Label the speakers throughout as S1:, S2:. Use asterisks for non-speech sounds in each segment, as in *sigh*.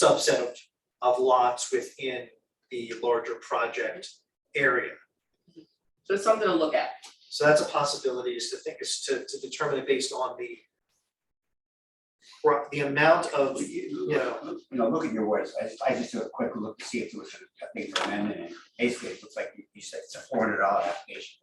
S1: subset of, of lots within the larger project area.
S2: So it's something to look at.
S1: So that's a possibility is to think is to, to determine it based on the ro- the amount of, you know,
S3: You know, look at your words, I, I just do a quick look to see if there was a big amendment, and basically, it looks like you- you said it's a four hundred dollar application.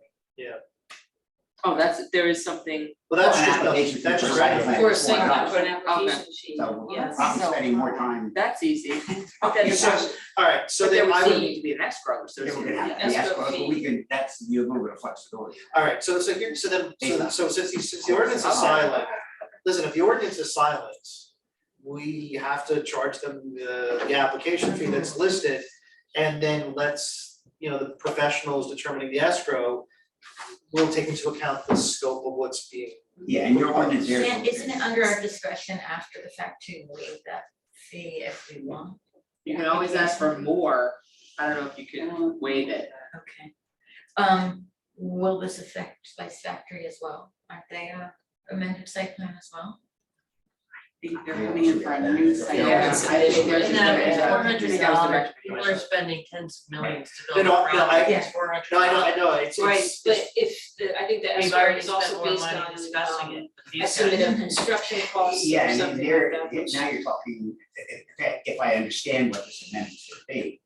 S2: Oh, that's, there is something,
S1: well, that's
S3: Well,
S1: just,
S3: application
S1: that's
S3: fee
S1: just
S3: for site
S1: right.
S3: plan.
S4: For a
S3: Why
S4: signature,
S3: not?
S4: for an application sheet,
S3: So
S4: yes.
S3: I'm spending more time.
S2: that's easy.
S4: Okay,
S1: So-
S4: that's-
S1: All right, so
S2: But there
S1: then
S2: would
S1: I
S2: still
S1: would,
S2: need to be an escrow, so
S3: If
S2: it's.
S3: we're gonna have to
S4: Escrow
S3: ask, but we
S4: fee.
S3: can, that's, you have a little bit of flexibility.
S1: all right, so so here, so then, so so since the, since the ordinance is
S2: Oh.
S1: silent, listen, if the ordinance is silent, we have to charge them the, the application fee that's listed, and then let's, you know, the professionals determining the escrow will take into account the scope of what's being
S3: Yeah, and your ordinance there.
S5: And isn't it under our discretion after the fact to waive that fee if we want?
S2: You can always ask for more, I don't know if you could waive it.
S5: Okay. Um, will this affect Spice Factory as well? Aren't they a amended site plan as well?
S6: think they're coming in for a new site.
S3: Yeah.
S2: I think there's.
S4: And that
S2: there's-
S4: is
S2: I
S4: $400.
S2: think that was the
S4: People
S2: recommendation.
S4: are spending tens of millions to
S1: No,
S4: build a
S1: no, no, I-
S4: project,
S5: Yeah.
S4: it's four hundred.
S1: No, I know, I know, it's,
S6: Right,
S1: it's,
S6: but if, the- I think the
S4: We've
S6: SR
S4: already
S6: is also
S4: spent more
S6: based
S4: money
S6: on
S4: discussing
S6: um,
S4: it. but these
S6: estimate
S4: guys-
S6: of construction costs
S3: Yeah,
S6: or
S3: and
S6: something
S3: then
S6: like
S3: there,
S6: that. which-
S3: now you're talking, if, if- if I understand what this amendment should be,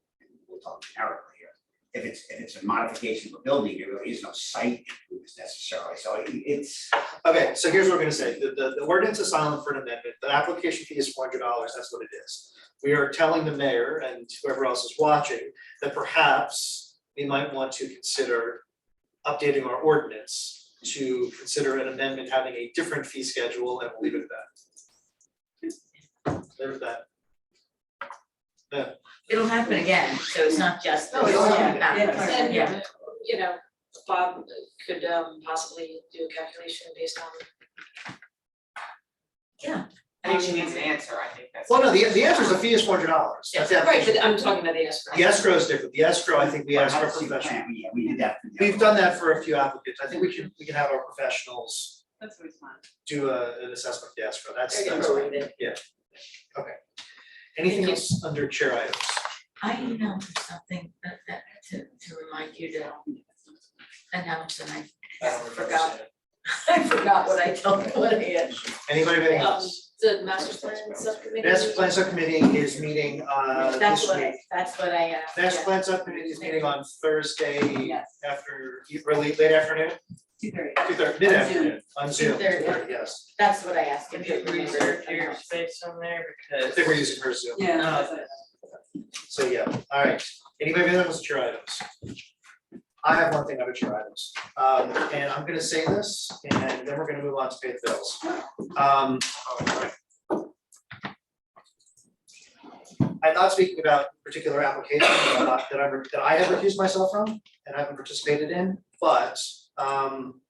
S3: we'll talk generically here. If it's, if it's a modification of a building, there really is no site improvements necessarily, so it- it's,
S1: okay, so here's what we're gonna say, the, the, the ordinance is silent for an amendment, the application fee is four hundred dollars, that's what it is. We are telling the mayor and whoever else is watching that perhaps we might want to consider updating our ordinance to consider an amendment having a different fee schedule and we'll leave it at that. There's that.
S5: It'll happen again, so Oh, it's not just
S1: No,
S5: this.
S1: it'll happen
S5: Yeah,
S1: again.
S5: yeah,
S6: And,
S5: yeah.
S6: you know, Bob could um possibly do a calculation based on
S2: I think she needs an answer, I think that's.
S1: Well, no, the, the answer is the fee is four hundred dollars, that's the
S6: Right,
S1: application.
S6: but I'm talking about the escrow.
S1: The escrow is different, the escrow, I think we asked our
S3: Perhaps you
S1: professional.
S3: can, yeah, we did that. for the
S1: We've
S3: other
S1: done
S3: one.
S1: that for a few applicants, I think we can, we can have our professionals
S6: That's always fun.
S1: do a, an assessment of the escrow, that's,
S6: There you
S1: that's
S6: go.
S1: right, yeah. Okay. Anything
S6: Thank you.
S1: else under chair items?
S5: I emailed you something that that to to remind you to announce and I
S1: I don't remember
S5: Forgot.
S1: seeing it.
S5: *laughs* I forgot what I told what I had.
S1: Anybody have anything
S6: Um,
S1: else?
S6: the master plan subcommittee.
S1: Master Plan Subcommittee is meeting, uh,
S5: That's
S1: this
S5: what
S1: week.
S5: I, that's what I uh.
S1: Master Plan Subcommittee is meeting on Thursday
S4: Yes.
S1: after, early, late afternoon,
S4: Two thirty.
S1: two thirty, mid-afternoon, on Zoom, two
S5: 2:30.
S1: thirty, yes.
S5: That's what I asked
S4: Can
S5: if
S4: you
S5: you
S4: reserve
S5: remembered.
S4: your space on there
S1: I
S4: because.
S1: think we're using her Zoom,
S6: Yeah.
S4: No.
S2: Oh,
S1: so yeah, all right, anybody have anything else on chair items? I have one thing under chair items, um, and I'm gonna say this, and then we're gonna move on to pay the bills. Um. I'm not speaking about particular applications that I'm not- that I've, that I have recused myself from and haven't participated in, but, um.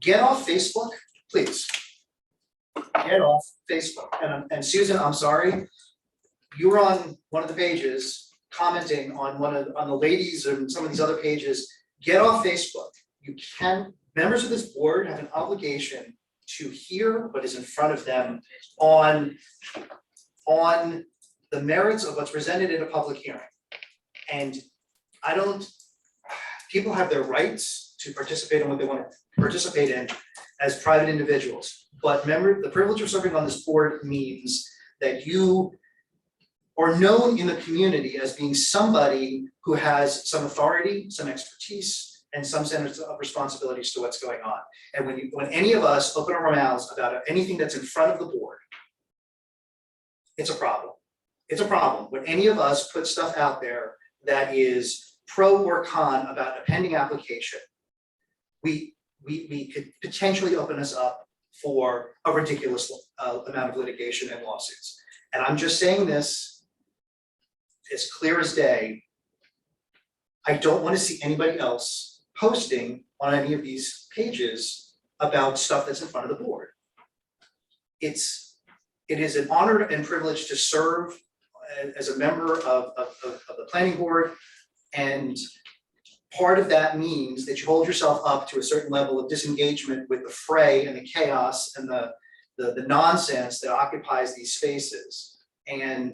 S1: Get off Facebook, please. Get off Facebook, and, I'm- and Susan, I'm sorry, you were on one of the pages commenting on one of, on the ladies and some of these other pages, get off Facebook. You can, members of this board have an obligation to hear what is in front of them on, on the merits of what's presented in a public hearing. And I don't, people have their rights to participate in what they want to participate in as private individuals. But member, the privilege of serving on this board means that you or known in the community as being somebody who has some authority, some expertise, and some sense of responsibilities to what's going on. And when you, when any of us open our mouths about anything that's in front of the board, it's a problem. It's a problem when any of us put stuff out there that is pro or con about a pending application. We, we, we could potentially open us up for a ridiculous uh, amount of litigation and lawsuits. And I'm just saying this as clear as day. I don't want to see anybody else posting on any of these pages about stuff that's in front of the board. It's, it is an honor and privilege to serve a- as a member of, of, of of the planning board. And part of that means that you hold yourself up to a certain level of disengagement with the fray and the chaos and the, the, the nonsense that occupies these spaces. And